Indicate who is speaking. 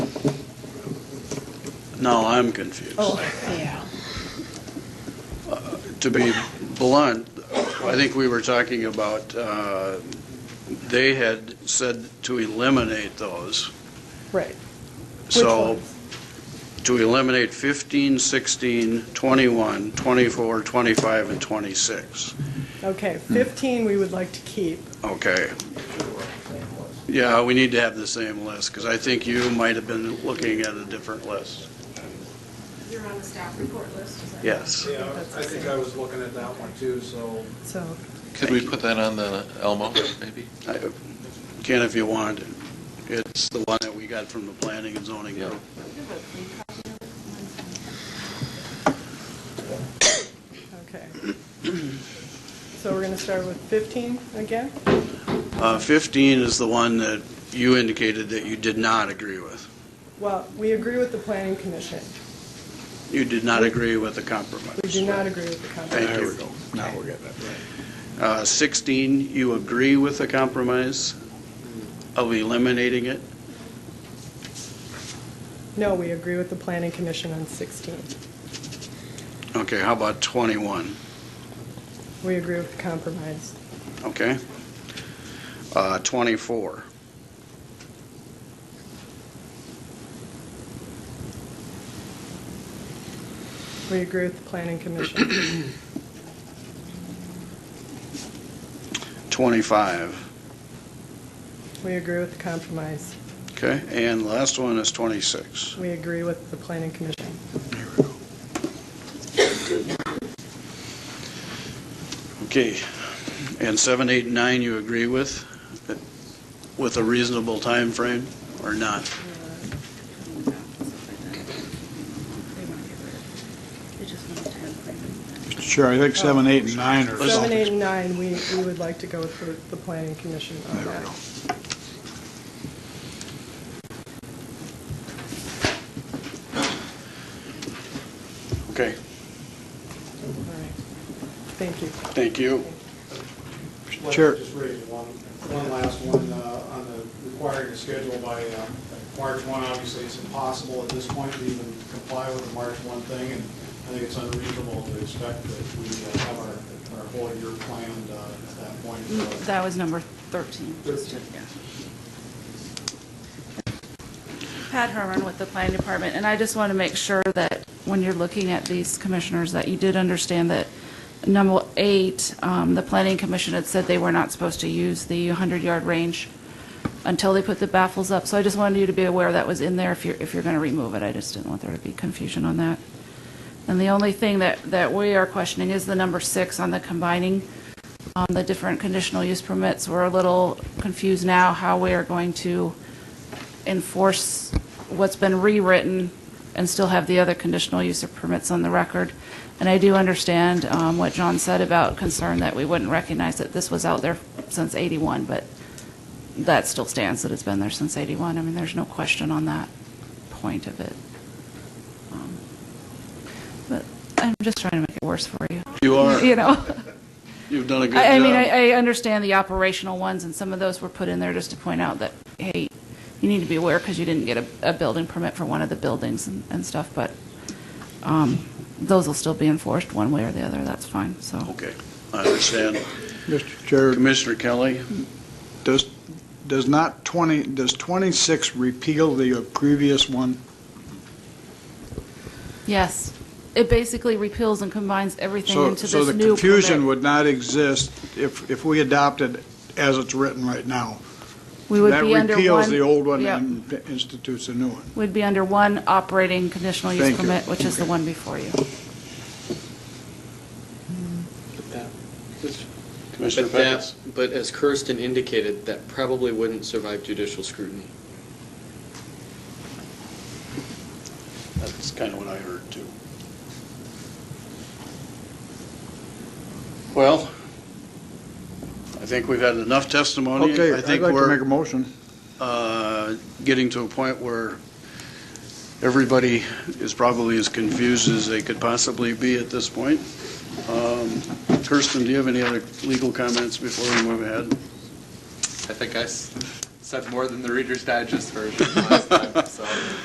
Speaker 1: No, I'm confused.
Speaker 2: Oh. yeah.
Speaker 1: To be blunt, I think we were talking about, uh, they had said to eliminate those.
Speaker 2: Right.
Speaker 1: So
Speaker 2: ones?
Speaker 1: to eliminate 15, 16, 21, 24, 25, and 26.
Speaker 2: Okay,
Speaker 3: Hmm.
Speaker 2: 15 we would like to keep.
Speaker 1: Okay. Yeah, we need to have the same list, because I think you might have been looking at a different list.
Speaker 4: You're on the staff report list, is that?
Speaker 1: Yes.
Speaker 5: Yeah, I think I was looking at that one too, so.
Speaker 2: So,
Speaker 6: Could we put that on the Elmo, maybe?
Speaker 1: I- Ken, if you want, it's the one that we got from the planning and zoning
Speaker 6: Yeah.
Speaker 1: group.
Speaker 2: okay. So we're going to start with 15 again?
Speaker 1: Uh, 15 is the one that you indicated that you did not agree with.
Speaker 2: Well, we agree with the planning commission.
Speaker 1: You did not agree with the compromise.
Speaker 2: We do not agree with the compromise.
Speaker 1: Thank you.
Speaker 3: Now we're getting it.
Speaker 1: Uh, 16, you agree with the compromise of eliminating it?
Speaker 2: No, we agree with the planning commission on 16.
Speaker 1: Okay, how about 21?
Speaker 2: We agree with the compromise.
Speaker 1: Okay? Uh, 24,
Speaker 2: We agree with the planning commission.
Speaker 1: 25,
Speaker 2: We agree with the compromise.
Speaker 1: okay? And last one is 26.
Speaker 2: We agree with the planning commission.
Speaker 1: Okay. And 7, 8, and 9, you agree with, with a reasonable time frame or not?
Speaker 4: They want to get rid of it. They just want a time frame.
Speaker 3: Sure, I think seven, eight, and nine are.
Speaker 2: Seven, eight, and nine, we, we would like to go with the- the planning commission on
Speaker 3: There we
Speaker 2: that.
Speaker 3: go.
Speaker 1: Okay,
Speaker 2: All right. Thank you.
Speaker 1: thank you.
Speaker 5: Let's
Speaker 3: Sure.
Speaker 5: Just raise one, one last one uh, on the requiring a schedule by uh, March 1. Obviously, it's impossible at this point to even comply with the March 1 thing, and I think it's unreasonable to expect that we uh, have our, our whole year planned uh, at that point. So,
Speaker 4: That was number 13.
Speaker 5: Thirteen.
Speaker 4: Pat Herman with the planning department, and I just want to make sure that when you're looking at these commissioners, that you did understand that number eight, um, the planning commission had said they were not supposed to use the 100-yard range until they put the baffles up. So I just wanted you to be aware that was in there if you're, if you're going to remove it. I just didn't want there to be confusion on that. And the only thing that, that we are questioning is the number six on the combining um, the different conditional use permits. We're a little confused now how we are going to enforce what's been rewritten and still have the other conditional use of permits on the record. And I do understand um, what John said about concern that we wouldn't recognize that this was out there since 81, but that still stands, that it's been there since 81. I mean, there's no question on that point of it. Um, But I'm just trying to make it worse for you.
Speaker 1: You
Speaker 4: You
Speaker 1: are,
Speaker 4: know?
Speaker 1: you've done a good job.
Speaker 4: I, I mean, I, I understand the operational ones, and some of those were put in there just to point out that, hey, you need to be aware because you didn't get a, a building permit for one of the buildings and, and stuff, but, um, those will still be enforced one way or the other, that's fine, so.
Speaker 1: Okay, I understand.
Speaker 3: Mr. Chair,
Speaker 1: Commissioner Kelly?
Speaker 3: does, does not 20, does 26 repeal the previous one?
Speaker 4: Yes, it basically repeals and combines everything
Speaker 3: So,
Speaker 4: into this new
Speaker 3: so the
Speaker 4: permit.
Speaker 3: confusion would not exist if, if we adopted as it's written right now.
Speaker 4: We would be under
Speaker 3: That repeals
Speaker 4: one-
Speaker 3: the old one
Speaker 4: yeah,
Speaker 3: and institutes a new one.
Speaker 4: We'd be under one operating conditional use
Speaker 3: Thank you.
Speaker 4: permit, which is the
Speaker 3: Okay.
Speaker 4: one before you.
Speaker 1: Commissioner
Speaker 7: But that-
Speaker 1: Pecos?
Speaker 7: But as Kirsten indicated, that probably wouldn't survive judicial scrutiny.
Speaker 1: That's kind of what I heard, too. Well, I think we've had enough testimony. I
Speaker 3: Okay, I'd like
Speaker 1: think
Speaker 3: to
Speaker 1: we're
Speaker 3: make a motion.
Speaker 1: uh, getting to a point where everybody is probably as confused as they could possibly be at this point. Um, Kirsten, do you have any other legal comments before we move ahead?
Speaker 8: I think I s- said more than the Reader's Digest version last time, so.